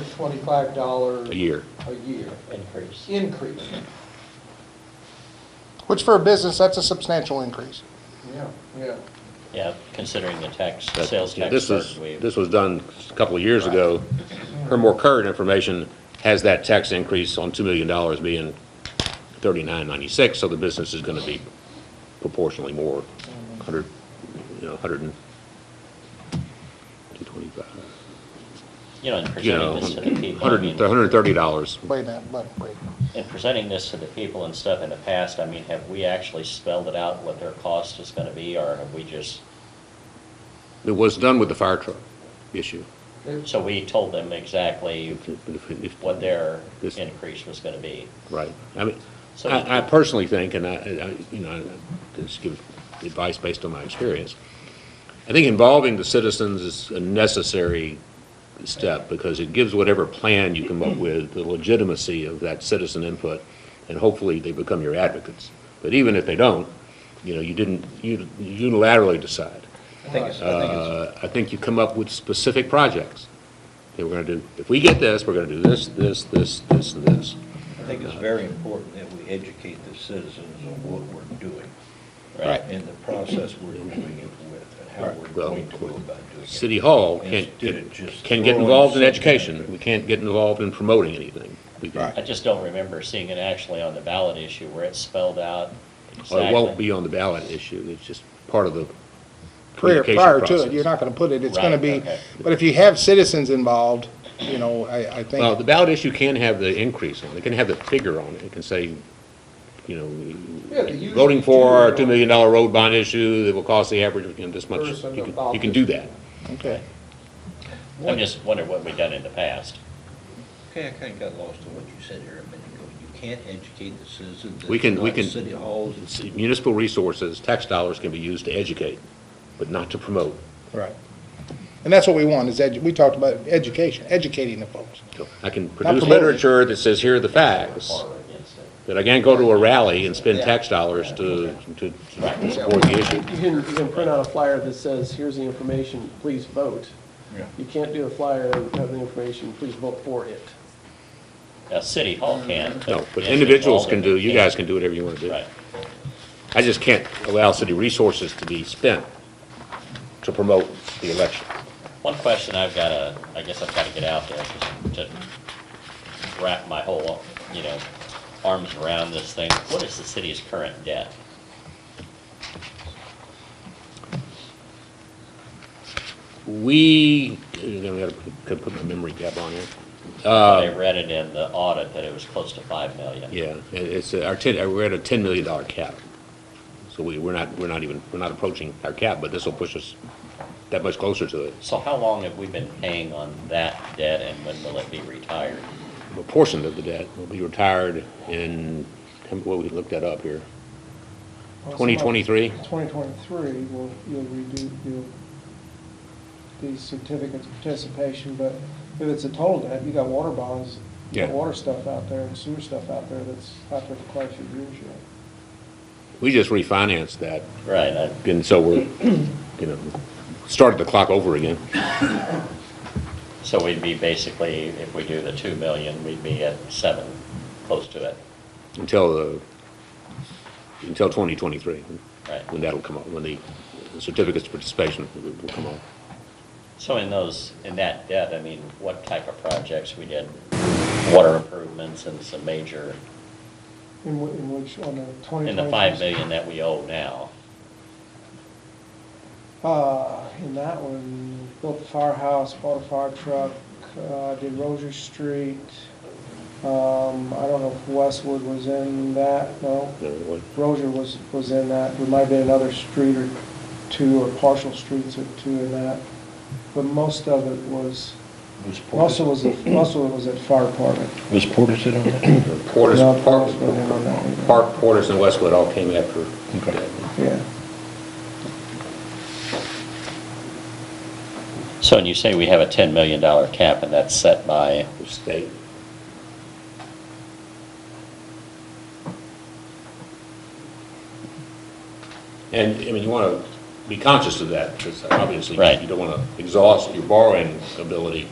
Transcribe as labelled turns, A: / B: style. A: $225
B: a year.
A: a year
C: increase.
A: increase.
D: Which for a business, that's a substantial increase.
A: Yeah, yeah.
C: Yeah, considering the tax,
B: That-
C: sales
B: yeah,
C: tax
B: This
C: burden
B: was,
C: we,
B: this was done a couple of years ago. Her more current information has that tax increase on $2 million being 39.96, so the business is going to be proportionally more, 100, you know, 100 and 225,
C: you know, in
B: you know,
C: presenting this to the people, I
B: 100
C: mean,
B: and- $130.
D: Wait a minute, wait, wait.
C: in presenting this to the people and stuff in the past, I mean, have we actually spelled it out what their cost is gonna be, or have we just,
B: It was done with the fire truck issue.
A: It-
C: so we told them exactly what their increase was gonna be?
B: Right. I mean,
C: So-
B: I, I personally think, and I, I, you know, I just give advice based on my experience. I think involving the citizens is a necessary step because it gives whatever plan you come up with the legitimacy of that citizen input and hopefully they become your advocates. But even if they don't, you know, you didn't you unilaterally decide.
E: I think it's, I think it's,
B: Uh, I think you come up with specific projects that we're going to do. If we get this, we're going to do this, this, this, this, and this.
E: I think it's very important that we educate the citizens on what we're doing
B: Right.
E: and the process we're doing it with and how we're
B: Well,
E: going to go about doing it.
B: City Hall can,
E: Instead of just
B: can get
E: throwing
B: involved in
E: something
B: education.
E: at
B: We can't get involved in promoting anything. We can-
C: I just don't remember seeing it actually on the ballot issue where it's spelled out
B: Or
C: exactly.
B: it won't be on the ballot issue. It's just part of the
D: Prior,
B: communication
D: prior to
B: process.
D: it, you're not gonna put it, it's gonna
C: Right,
D: be,
C: okay.
D: but if you have citizens involved, you know, I, I
B: Well, the
D: think,
B: ballot issue can have the increase on it. It can have the figure on it. It can say, you know,
A: Yeah, the usual
B: voting for our $2
A: two
B: million road bond issue that will cost the average, you know, this much. You
A: Person
B: can-
A: involved
B: you can
A: is-
B: do that.
D: okay.
C: I'm just wondering what we've done in the past.
E: Okay, I kinda got lost in what you said here a minute ago. You can't educate the citizens. that
B: We can- we
E: like
B: can-
E: City halls.
B: It's- Municipal resources, tax dollars can be used to educate, but not to promote.
D: Right. And that's what we want, is edu, we talked about education, educating the folks.
B: So I can produce
D: promoting.
B: literature that says, here are the facts.
C: Or against it.
B: That I can't go to a rally and spend tax dollars to, to to support the issue.
F: You can, you can print out a flyer that says, here's the information, please vote.
E: Yeah.
F: You can't do a flyer and have the information, please vote for it.
C: Now, City Hall can.
B: No, but individuals can do, you guys can do whatever you want to do.
C: Right.
B: I just can't allow city resources to be spent to promote the election.
C: One question I've got to, I guess I've got to get out there just to wrap my whole, you know, arms around this thing. What is the city's current debt?
B: We, I'm gonna gotta put my memory cap on here.
C: I read it in the audit that it was close to 5 million.
B: Yeah, it- it's, uh, our ten, uh, we're at a ten million dollar cap. So we, we're not, we're not even, we're not approaching our cap, but this will push us that much closer to it.
C: So how long have we been paying on that debt and when will it be retired?
B: A portion of the debt will be retired in, well, we looked that up here. 2023?
F: 2023, will you'll redo, you'll, these certificates of participation, but if it's a total debt, you got water bonds, you got
B: Yeah.
F: water stuff out there and sewer stuff out there that's out there for quite a few years yet.
B: We just refinanced that,
C: Right, I-
B: and so we're, you know, started the clock over again.
C: so we'd be basically, if we do the 2 million, we'd be at 7, close to it,
B: until the, until 2023,
C: right?
B: when that'll come up, when the certificates of participation will will come up.
C: So in those, in that debt, I mean, what type of projects we did? Water improvements and some major,
F: In whi- in which, on the 2023.
C: in the five million that we owe now.
F: Uh, in that one, built the firehouse, bought a fire truck, uh, did Rozier Street. Um, I don't know if Westwood was in that, no,
B: You know, what-
F: Rozier was, was in that. There might have been another street or two or partial streets or two in that. But most of it was,
E: Was
F: most of it
E: Portis,
F: was, at- most of it was at fire department.
E: was Portis in on that?
B: Portis,
F: No,
B: Park,
F: Portis wasn't in on that one.
B: Park, Portis, and Westwood all came after
E: Okay.
F: Yeah.
C: So, and you say we have a ten million dollar cap and that's set by,
B: the state. And, I mean, you want to be conscious of that, because obviously
C: Right.
B: you don't want to exhaust your borrowing ability